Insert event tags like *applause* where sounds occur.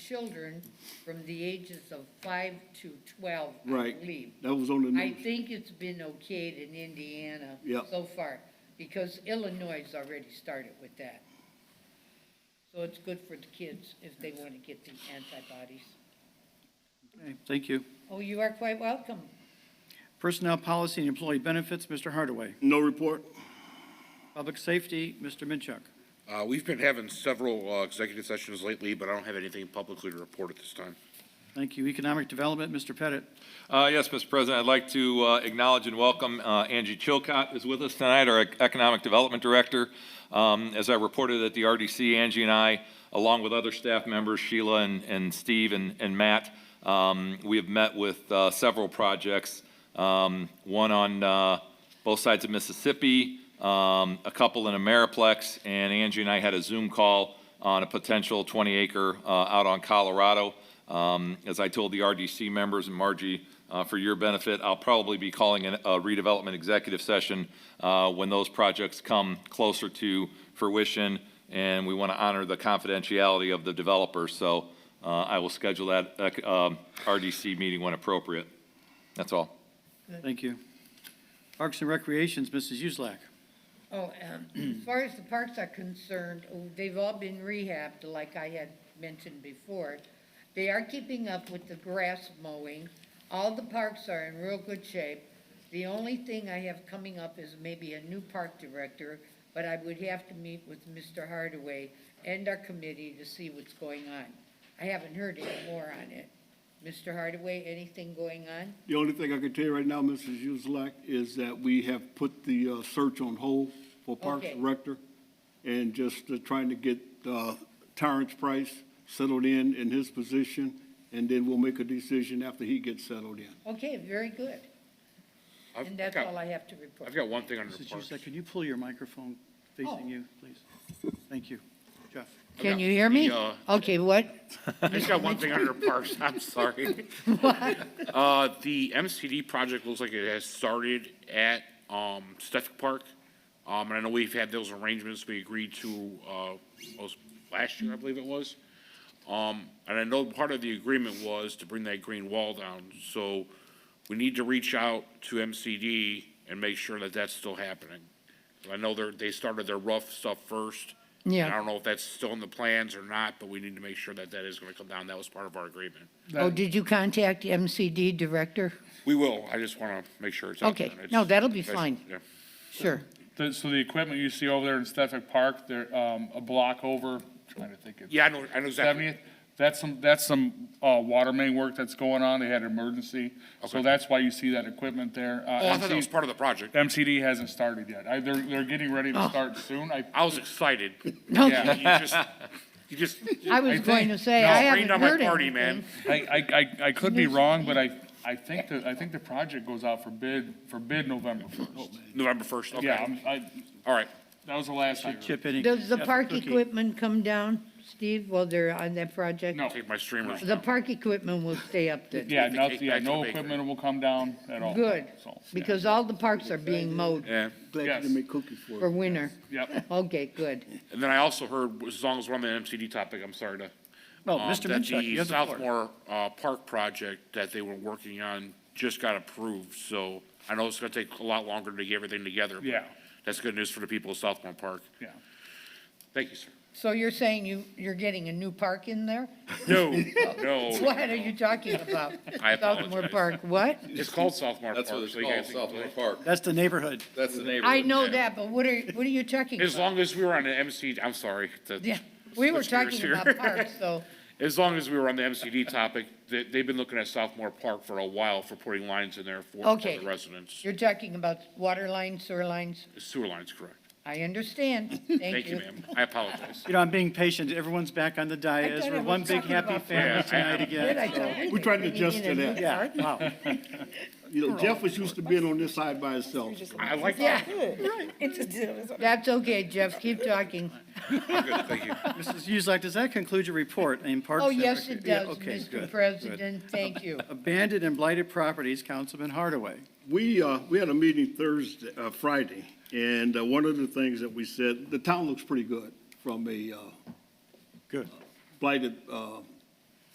children from the ages of five to twelve, I Right. believe. That was on the I news. think it's been okayed in Indiana Yep. so far, because Illinois has already started with that. So it's good for the kids if they want to get the antibodies. Okay, Thank you. Oh, you are quite welcome. Personnel Policy and Employee Benefits, Mr. Hardaway. No report? Public Safety, Mr. Minchuk. Uh, We've been having several uh, executive sessions lately, but I don't have anything publicly to report at this time. Thank you. Economic Development, Mr. Pettit. Uh, Yes, Mr. President, I'd like to uh, acknowledge and welcome uh, Angie Chilcott is with us tonight, our Economic Development Director. Um, As I reported at the RDC, Angie and I, along with other staff members, Sheila and- and Steve and and Matt, um, we have met with uh, several projects, um, one on uh, both sides of Mississippi, um, a couple in Ameriplex, and Angie and I had a Zoom call on a potential 20-acre out on Colorado. Um, As I told the RDC members, and Margie, uh, for your benefit, I'll probably be calling an- a redevelopment executive session uh, when those projects come closer to fruition, and we want to honor the confidentiality of the developer. So uh, I will schedule that uh, um, RDC meeting when appropriate. That's all. Thank you. Parks and Recreations, Mrs. Uselak. Oh, um, *clears throat* as far as the parks are concerned, oh, they've all been rehabbed, like I had mentioned before. They are keeping up with the grass mowing. All the parks are in real good shape. The only thing I have coming up is maybe a new park director, but I would have to meet with Mr. Hardaway and our committee to see what's going on. I haven't heard any more on it. Mr. Hardaway, anything going on? The only thing I can tell you right now, Mrs. Uselak, is that we have put the uh, search on hold for Parks Okay. Director and just uh, trying to get uh, Terrence Price settled in in his position, and then we'll make a decision after he gets settled in. Okay, very good. I've And that's got- all I have to report. I've got one thing under Mrs. parks. Uselak, could you pull your microphone Oh. facing you, please? Thank you. Jeff. Can Okay. you hear me? The, uh, Okay, what? I just got one thing under parks, I'm sorry. Uh, The MCD project looks like it has started at um, Suffolk Park. Um, And I know we've had those arrangements we agreed to uh, most- last year, I believe it was. Um, And I know part of the agreement was to bring that green wall down. So we need to reach out to MCD and make sure that that's still happening. I know they're, they started their rough stuff first. and Yeah. I don't know if that's still in the plans or not, but we need to make sure that that is going to come down. That was part of our agreement. Oh, did you contact MCD director? We will. I just want to make sure it's out there. Okay. It's- No, that'll be that's- fine. yeah. Sure. The- So the equipment you see over there in Suffolk Park, they're um, a block over, trying to think of Yeah, I know, I know exactly. seventieth. That's some, that's some uh, water main work that's going on. They had an emergency. So Okay. that's why you see that equipment there. Uh, Oh, I thought that MC was part of the project. MCD hasn't started yet. I- They're, they're getting ready Oh. to start soon. I, I was excited. *laughs* No, You yeah. just, you just. I was think- going to say, no, I haven't rained on my heard party, anything. man. I, I, I- I could be wrong, but I, I think the, I think the project goes out for bid, for bid November first. November first, Oh, okay. Yeah, I'm- I, All right. that was the last I heard. Chip in. Does the Jeff park Cookie. equipment come down, Steve, while they're on that project? No. Take my streamers. The park equipment will stay up then, Yeah, Take the no, cake yeah, back to the no bakery. equipment will come down at all. Good. So, yeah. because all the parks are being mowed Yeah. Glad you Yes. didn't make cookies for us. for winter. Yep. Okay, good. And then I also heard, as long as we're on the MCD topic, I'm sorry to. Oh, No, um, Mr. that Oh, Minchuk, you have the the floor. Southmore, uh, Park project that they were working on just got approved, so I know it's gonna take a lot longer to get everything together. but Yeah. That's good news for the people of Southmore Park. Yeah. Thank you, sir. So you're saying you, you're getting a new park in there? *laughs* No, *laughs* no. What are you talking about? I Southmore apologize. Park, what? It's called Southmore Park. That's what it's so you guys called, can- Southmore Park. That's the neighborhood. That's the neighborhood. I know that, but what are, what are you talking about? As long as we were on the MC, I'm sorry. to Yeah, we were switch gears talking here. about parks, though. *laughs* As long as we were on the MCD topic, they, they've been looking at Southmore Park for a while for putting lines in there for for Okay. the residents. You're talking about water lines, sewer lines? Sewer lines, correct. I *laughs* understand. Thank Thank you, you. ma'am. *laughs* I apologize. You know, I'm being patient. Everyone's back on the I dais. thought I We're was one big talking happy about family parks. Yeah, I- tonight Did I again. tell you? We're trying to adjust Bringing to in a new Yeah, park? wow. You know, Jeff was used to being on this side by himself. I like Yeah, that. that's okay, Jeff, keep talking. I'm good, thank you. Mrs. Uselak, does that conclude your report in Parks? Oh, and yes, Recre- it Yeah, does, okay, good, Mr. good. President, thank you. Abandoned and blighted properties, Councilman Hardaway. We, uh, we had a meeting Thursday, uh, Friday, and uh, one of the things that we said, the town looks pretty good from a, uh, Good. blighted, uh,